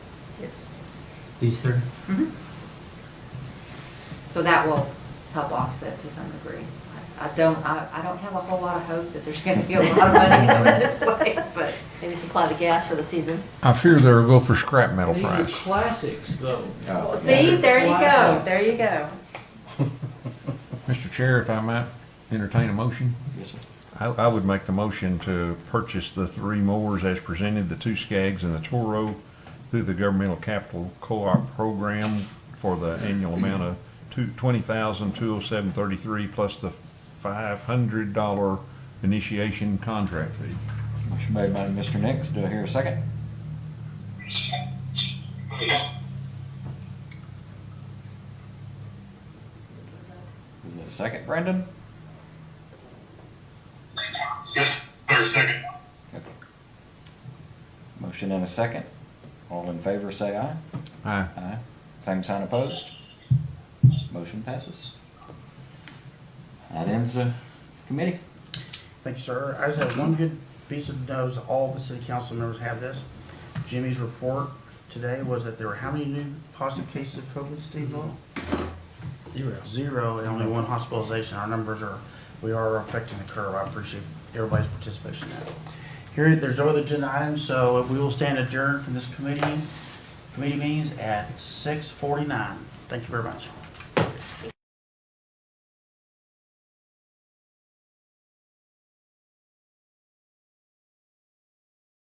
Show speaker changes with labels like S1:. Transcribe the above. S1: Yes.
S2: These three?
S1: Mhm. So that will help offset to some degree. I I don't, I, I don't have a whole lot of hope that there's gonna be a lot of money coming this way, but
S3: Maybe supply the gas for the season.
S4: I fear they'll go for scrap metal
S5: These are
S4: price.
S5: classics, though.
S4: Uh,
S1: see, there you go,
S5: Classic.
S1: there you go.
S4: Mr. Chair, if I might entertain a motion?
S5: Yes, sir.
S4: I, I would make the motion to purchase the three mowers as presented, the two Skags and the Toro, through the governmental capital co-op program for the annual amount of two, twenty thousand, two oh seven thirty-three, plus the five hundred dollar initiation contract fee.
S6: Motion made by Mr. Nix. Do I hear a second? Is it a second, Brandon?
S7: Yes, or second.
S6: Okay. Motion and a second. All in favor, say aye.
S4: Aye.
S6: Aye. Same sign opposed. Motion passes. That ends the committee.
S8: Thank you, sir. I just have one good piece of news. All the city council members have this. Jimmy's report today was that there were how many new positive cases of COVID, Steve Law? Zero. Zero, and only one hospitalization. Our numbers are, we are affecting the curve. I appreciate everybody's participation in that. Here, there's no other agenda items, so we will stand adjourned from this committee, committee meetings at six forty-nine. Thank you very much.